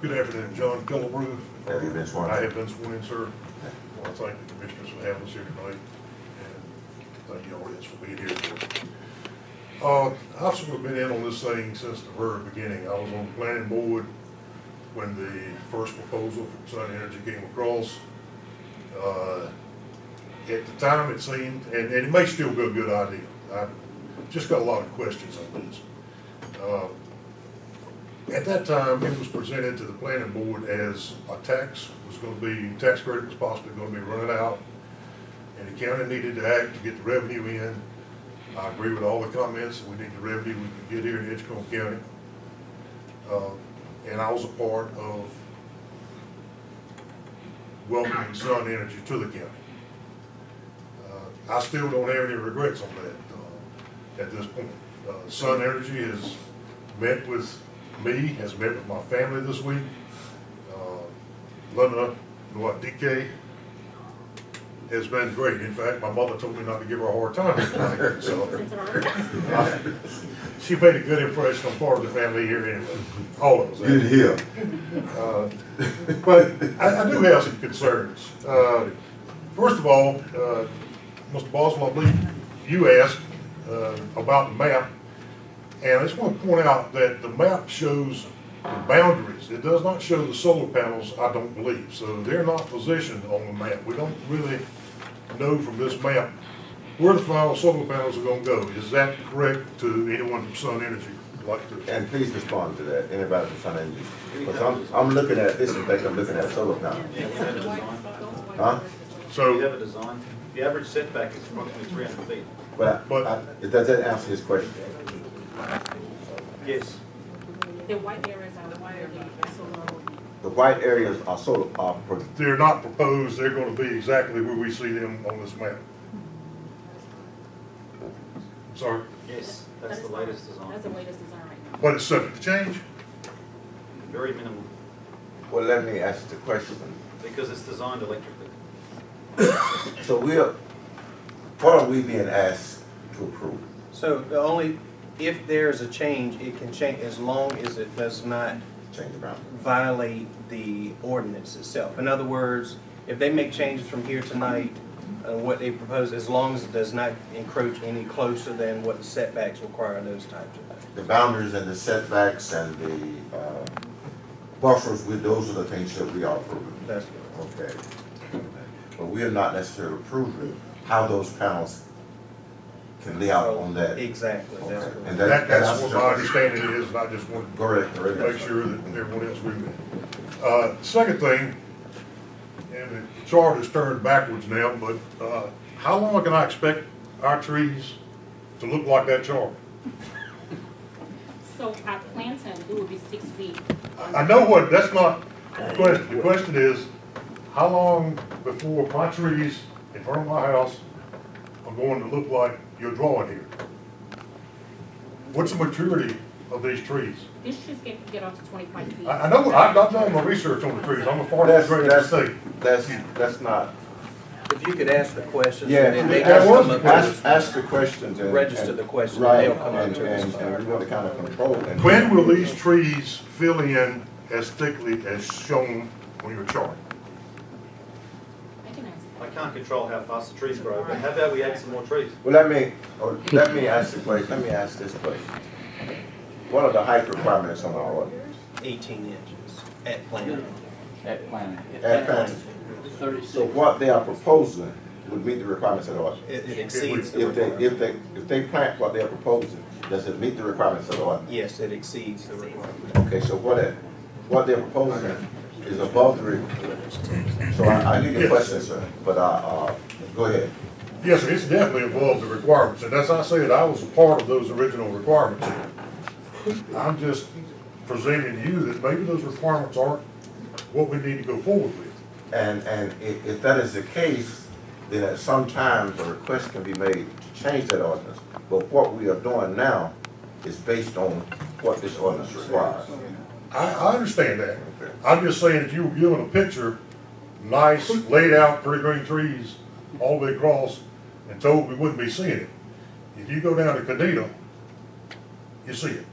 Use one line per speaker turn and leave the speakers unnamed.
Good afternoon, John Pillabrue.
Have you been sworn in?
I have been sworn in, sir. I want to thank the commissioners for having us here tonight, and thank the audience for being here. Uh, I've sort of been in on this thing since the very beginning. I was on the planning board when the first proposal from Sun Energy came across. Uh, At the time, it seemed, and, and it may still be a good idea. I've just got a lot of questions on this. Uh, at that time, it was presented to the planning board as a tax was gonna be, tax credit was possibly gonna be running out, and the county needed to act to get the revenue in. I agree with all the comments, we need the revenue we can get here in Edgecombe County. Uh, And I was a part of welcoming Sun Energy to the county. Uh, I still don't have any regrets on that, uh, at this point. Uh, Sun Energy has met with me, has met with my family this week. Uh, Linda Noadike has been great. In fact, my mother told me not to give her a hard time tonight, so. uh, She made a good impression on part of the family here anyway, all of us.
Good hill.
Uh, But I, I do have some concerns. Uh, First of all, uh, Mr. Boswell, I believe you asked uh, about the map. And I just want to point out that the map shows the boundaries. It does not show the solar panels, I don't believe. So they're not positioned on the map. We don't really know from this map where the final solar panels are going to go. Is that correct to anyone from Sun Energy who'd like to?
And please respond to that, anybody from Sun Energy. Because I'm, I'm looking at this and think I'm looking at solar panel.
Yeah, we have a design.
Huh?
So.
We have a design. The average setback is approximately three hundred feet.
But I- I, does that answer his question?
Yes.
The white areas are wider than the solar.
The white areas are solar, are, pro-
they're not proposed, they're gonna be exactly where we see them on this map. I'm Sorry,
Yes, that's the latest design.
That's the latest design right now.
but it's subject to change.
Very minimal,
well, let me ask the question.
because it's designed electrically.
So we're, what are we being asked to approve?
So the only, if there's a change, it can change as long as it does not
Change around.
violate the ordinance itself. In other words, if they make changes from here tonight, uh, what they propose, as long as it does not encroach any closer than what the setbacks require and those types of things.
The boundaries and the setbacks and the, uh, buffers, we, those are the things that we are approving.
That's,
Okay. But we are not necessarily approving how those panels can lay out on that.
exactly, that's
Okay.
correct.
And
That, that's
that's
what
your
my
question.
understanding is, and I just wanted
Correct,
to make
correct.
sure that everyone else read it. Uh, second thing, and the chart is turned backwards now, but, uh, how long can I expect our trees to look like that chart?
So our planting, it will be six feet.
I I know what, that's not the question. The question is, how long before my trees in front of my house are going to look like your drawing here? What's the maturity of these trees?
This should get, get up to twenty-five feet.
I, I know, I've, I've done my research on the trees. I'm a part of
That's,
the great
that's,
state.
that's, that's not,
If you could ask the questions,
yeah,
and then they
make
can
that
come
work.
up
ask,
with.
ask the questions and.
Register
and-
the question, and
Right,
they'll come up
and,
to
and,
us.
and we want to kind of control. and-
When will these trees fill in as thickly as shown on your chart?
I can ask.
I can't control how fast the trees grow, but how about we add some more trees?
Well, let me, oh, let me ask the question, let me ask this question. What are the height requirements on our ordinance?
Eighteen inches at plan.
That plan,
At Fannin. So what they are proposing would meet the requirements of the ordinance.
It it exceeds the
If they,
requirement.
if they, if they plant what they're proposing, does it meet the requirements of the ordinance?
Yes, it exceeds the requirement.
Okay, so what it, what they're proposing is above the, re- so I, I need your question, sir, but, uh, uh, go ahead.
Yes, sir, it's definitely above the requirements, and as I said, I was a part of those original requirements. I'm just presenting to you that maybe those requirements aren't what we need to go forward with.
And, and if, if that is the case, then at some time, a request can be made to change that ordinance. But what we are doing now is based on what this ordinance requires.
I, I understand that. I'm just saying that you were given a picture, nice, laid out, pretty green trees, all the way across, and told we wouldn't be seeing it. If you go down to Cadita, you see it.